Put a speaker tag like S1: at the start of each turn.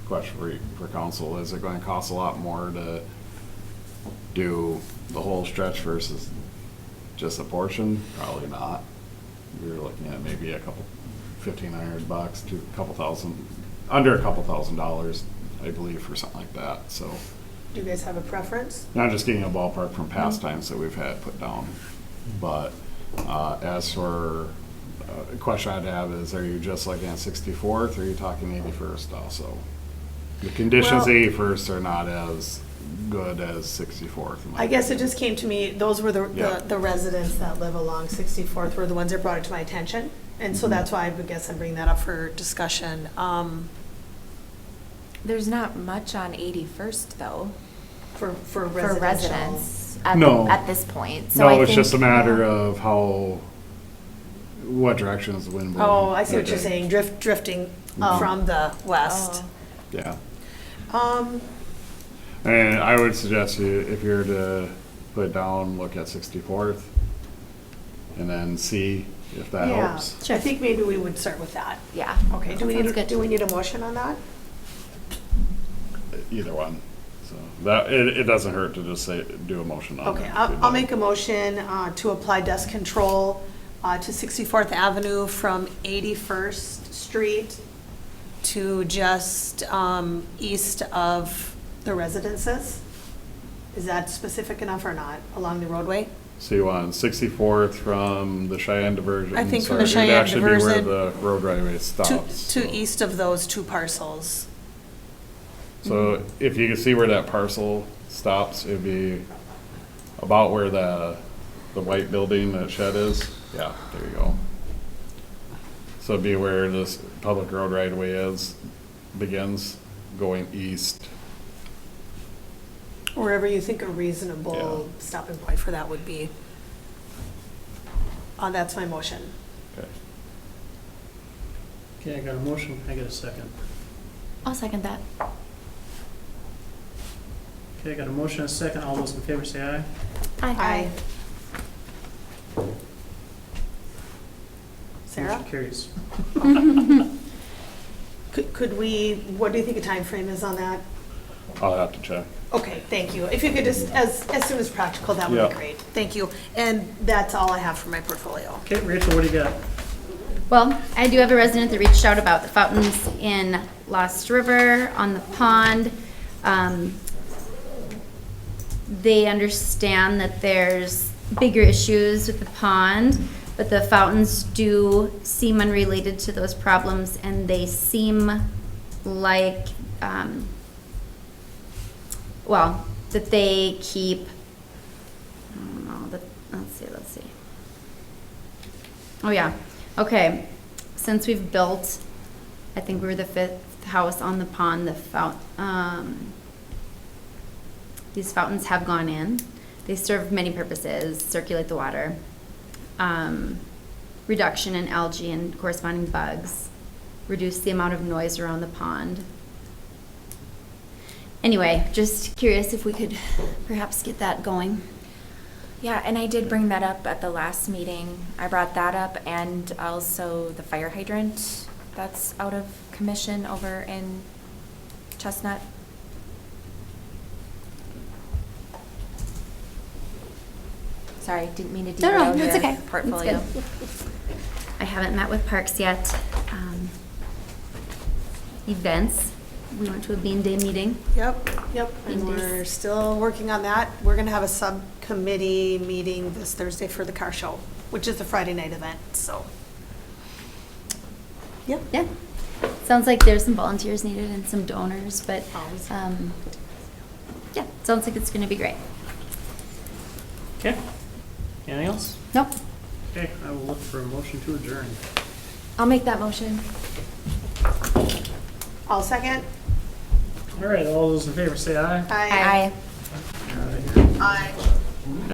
S1: question for, you- for council, is it gonna cost a lot more to do the whole stretch versus just a portion? Probably not. We're looking at maybe a couple, fifteen hundred bucks to a couple thousand, under a couple thousand dollars, I believe, for something like that, so.
S2: Do you guys have a preference?
S1: And I'm just getting a ballpark from past
S2: Mm-hmm.
S1: times that we've had put down. But uh, as for, uh, a question I'd have is, are you just looking at 64th, or are you talking 81st also? The conditions
S2: Well-
S1: 81st are not as good as 64th. in my
S2: I guess it just came to me, those were the-
S1: Yeah.
S2: the, the residents that live along 64th were the ones that brought it to my attention. And so
S1: Mhm.
S2: that's why I would guess I'm bringing that up for discussion. Um,
S3: There's not much on 81st, though,
S2: for, for
S3: for
S2: residential.
S3: residents at,
S1: No.
S3: at this point. So
S1: No,
S3: I
S1: it's just a
S3: think-
S1: matter of how, what direction is the wind blowing.
S2: Oh, I see what you're
S1: Okay.
S2: saying, drift, drifting um,
S1: Oh.
S2: from the west.
S3: Oh.
S1: Yeah.
S2: Um,
S1: And I would suggest you, if you're to put it down, look at 64th, and then see if that
S2: yeah,
S1: helps.
S2: I think maybe we would start with that.
S3: Yeah.
S2: Okay, do we
S3: Sounds
S2: need, a-
S3: good.
S2: do we need a motion on that?
S1: Either one. So that, it, it doesn't hurt to just say, do a motion on it.
S2: Okay, I'll, I'll make a motion uh, to apply dust control uh, to 64th Avenue from 81st Street to just um, east of the residences. Is that specific enough or not, along the roadway?
S1: So you want sixty-fourth from the Cheyenne diversion.
S2: I think from the
S1: sorry, it'd actually
S2: Cheyenne
S1: be
S2: diversion
S1: Where the road right away
S2: To,
S1: stops. so-
S2: to east of those two parcels.
S1: So if you can see where that parcel stops, it'd be about where the, the white building, that shed is. Yeah, there you go. So it'd be where this public road right away is, begins going east.
S2: Wherever you think a reasonable stopping point for that would be. Uh, That's my motion.
S1: Okay.
S4: Okay, I got a motion, I got a second.
S3: I'll second that.
S4: Okay, I got a motion, a second, all those in favor say aye.
S2: Aye. Sarah?
S4: Motion carries.
S2: Could, could we, what do you think the time frame is on that?
S1: I'll have to check.
S2: Okay, thank you. If you could just, as, as soon as practical, that would be
S1: Yeah.
S2: great. Thank you. And that's all I have for my portfolio.
S4: Okay, Rachel, what do you got?
S5: Well, I do have a resident that reached out about the fountains in Lost River, on the pond. Um, They understand that there's bigger issues with the pond, but the fountains do seem unrelated to those problems, and they seem like, um, well, that they keep, I don't know, that, let's see, let's see. Oh, yeah. Okay. Since we've built, I think we were the fifth house on the pond, the fount, um, these fountains have gone in. They serve many purposes, circulate the water, um, reduction in algae and corresponding bugs, reduce the amount of noise around the pond. Anyway, just curious if we could perhaps get that going.
S3: Yeah, and I did bring that up at the last meeting. I brought that up and also the fire hydrant that's out of commission over in Chestnut. Sorry, didn't mean to
S5: No, no,
S3: derail
S5: it's okay.
S3: your
S5: It's
S3: portfolio.
S5: good. I haven't met with Parks yet. Um, Events, we went to a Bean Day meeting.
S2: Yep, yep. And
S5: Indeed.
S2: we're still working on that. We're going to have a subcommittee meeting this Thursday for the car show, which is the Friday night event, so. Yep.
S5: Yeah, sounds like there's some volunteers needed and some donors, but,
S2: Always.
S5: um, yeah, sounds like it's gonna be great.
S4: Okay, anything else?
S5: Nope,
S4: Okay, I will look for a motion to adjourn.
S3: I'll make that motion.
S2: All second?
S4: All right, all those in favor say aye.
S2: Aye. Aye.